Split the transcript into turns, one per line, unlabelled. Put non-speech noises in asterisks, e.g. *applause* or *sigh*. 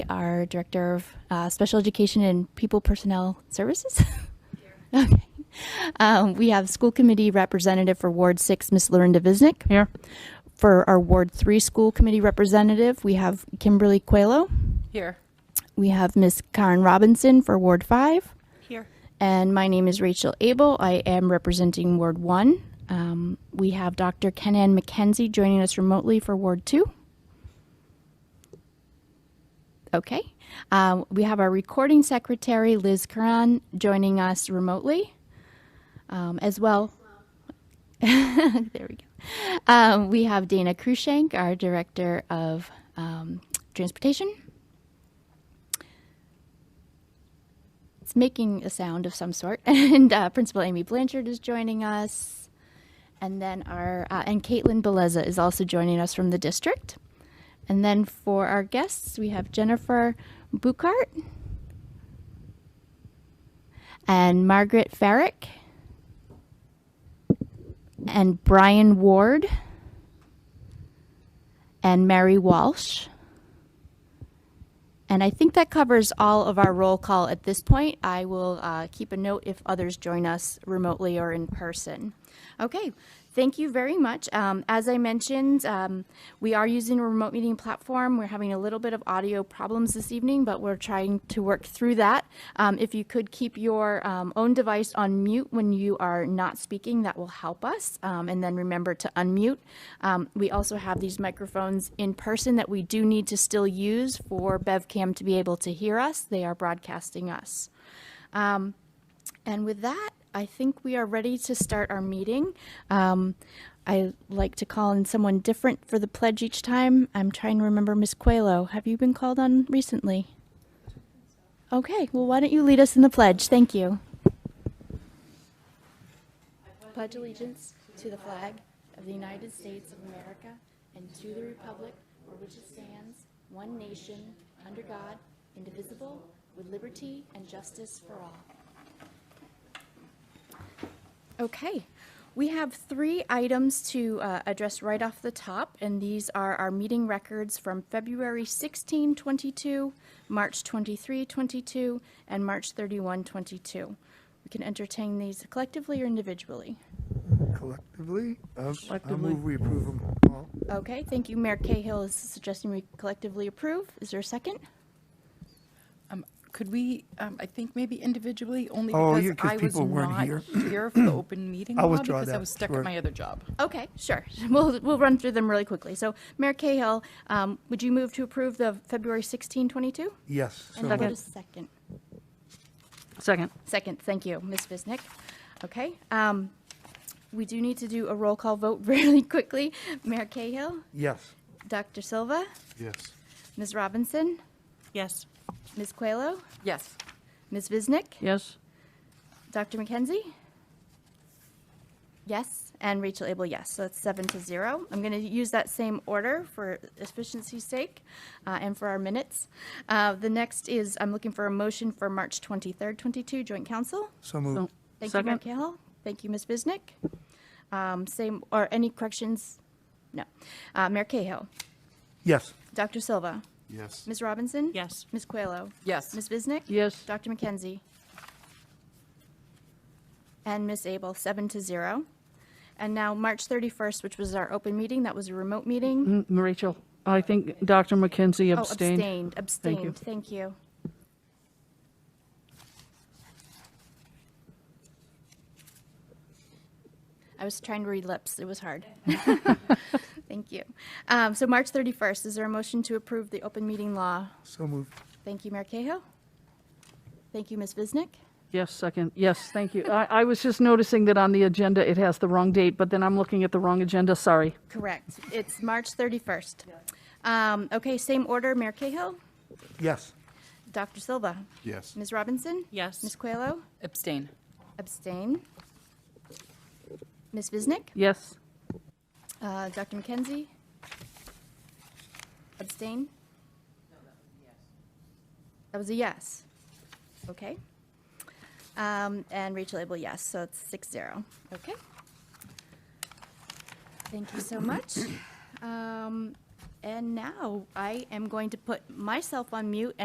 our Director of uh, Special Education and People Personnel Services. *laughs* Okay. Um, We have School Committee Representative for Ward 6, Ms. Lauren DeViznik.
Here.
For our Ward 3 School Committee Representative, we have Kimberly Coelho.
Here.
We have Ms. Karen Robinson for Ward 5.
Here.
And my name is Rachel Abel. I am representing Ward 1. Um, we have Dr. Kenan McKenzie joining us remotely for Ward 2. Okay. Um, we have our recording secretary, Liz Curran, joining us remotely um, as well. *laughs* there we go. Um, we have Dana Krushank, our director of um, transportation. It's making a sound of some sort. *laughs* And uh, Principal Amy Blanchard is joining us. And then our, uh, and Caitlin Beleza is also joining us from the district. And then for our guests, we have Jennifer Buchart and Margaret Farrick and Brian Ward and Mary Walsh. And I think that covers all of our roll call at this point. I will uh, keep a note if others join us remotely or in person. Okay, thank you very much. Um, as I mentioned, um, we are using a remote meeting platform. We're having a little bit of audio problems this evening, but we're trying to work through that. Um, if you could keep your um, own device on mute when you are not speaking, that will help us. Um, and then remember to unmute. Um, we also have these microphones in person that we do need to still use for BevCam to be able to hear us. They are broadcasting us. Um, and with that, I think we are ready to start our meeting. Um, I like to call in someone different for the pledge each time. I'm trying to remember Miss Coelho. Have you been called on recently? Okay, well, why don't you lead us in the pledge? Thank you. Pledge allegiance to the flag of the United States of America and to the republic for which it stands, one nation, under God, indivisible, with liberty and justice for all. Okay, we have three items to uh, address right off the top, and these are our meeting records from February 16, 22, March 23, 22, and March 31, 22. We can entertain these collectively or individually.
Collectively? Um, I
Collectively.
move we approve them all.
Okay, thank you. Mayor Cahill is suggesting we collectively approve. Is there a second?
Um, Could we, um, I think maybe individually, only
Oh, yeah,
because
'cause
I was
people weren't
not
here.
here for
*clears throat*
the open meeting
I'll
law
withdraw
because I
that,
was stuck
sure.
at my other job.
Okay, sure. *laughs* We'll, we'll run through them really quickly. So Mayor Cahill, um, would you move to approve the February 16, 22?
Yes. so
And what
moved.
is second?
Second.
Second, thank you, Ms. Visnick. Okay, um, we do need to do a roll call vote *laughs* really quickly. Mayor Cahill,
Yes.
Dr. Silva,
Yes.
Ms. Robinson,
Yes.
Ms. Coelho,
Yes.
Ms. Visnick,
Yes.
Dr. McKenzie? Yes, and Rachel Abel, yes. So that's seven to zero. I'm going to use that same order for efficiency's sake uh, and for our minutes. Uh, The next is, I'm looking for a motion for March 23rd, 22, Joint Council.
So moved.
Thank you, Mayor
Second.
Cahill. Thank you, Ms. Bisnick. Um, Same, or any corrections? No. Uh, Mayor Cahill,
Yes.
Dr. Silva,
Yes.
Ms. Robinson?
Yes.
Ms. Coelho?
Yes.
Ms. Bisnick?
Yes.
Dr. McKenzie? And Ms. Abel, seven to zero. And now, March 31st, which was our open meeting, that was a remote meeting.
Mm, Rachel, I think Dr. McKenzie
Oh,
abstained.
Abstained,
Thank you.
abstained, thank you. I was trying to read lips, it was
*laughs*
hard. Thank you. Um, So March 31st, is there a motion to approve the open meeting law?
So moved.
Thank you, Mayor Cahill. Thank you, Ms. Visnick.
Yes, second. Yes, thank you. I, I was just noticing that on the agenda, it has the wrong date, but then I'm looking at the wrong agenda. Sorry.
Correct. It's March 31st. Um, Okay, same order, Mayor Cahill,
Yes.
Dr. Silva,
Yes.
Ms. Robinson?
Yes.
Ms. Coelho?
Abstain.
Abstain. Ms. Visnick?
Yes.
Uh, Dr. McKenzie? Abstain? That was a yes. Okay. Um, And Rachel Abel, yes, so it's six zero. Okay. Thank you so much. Um, And now I am going to put myself on mute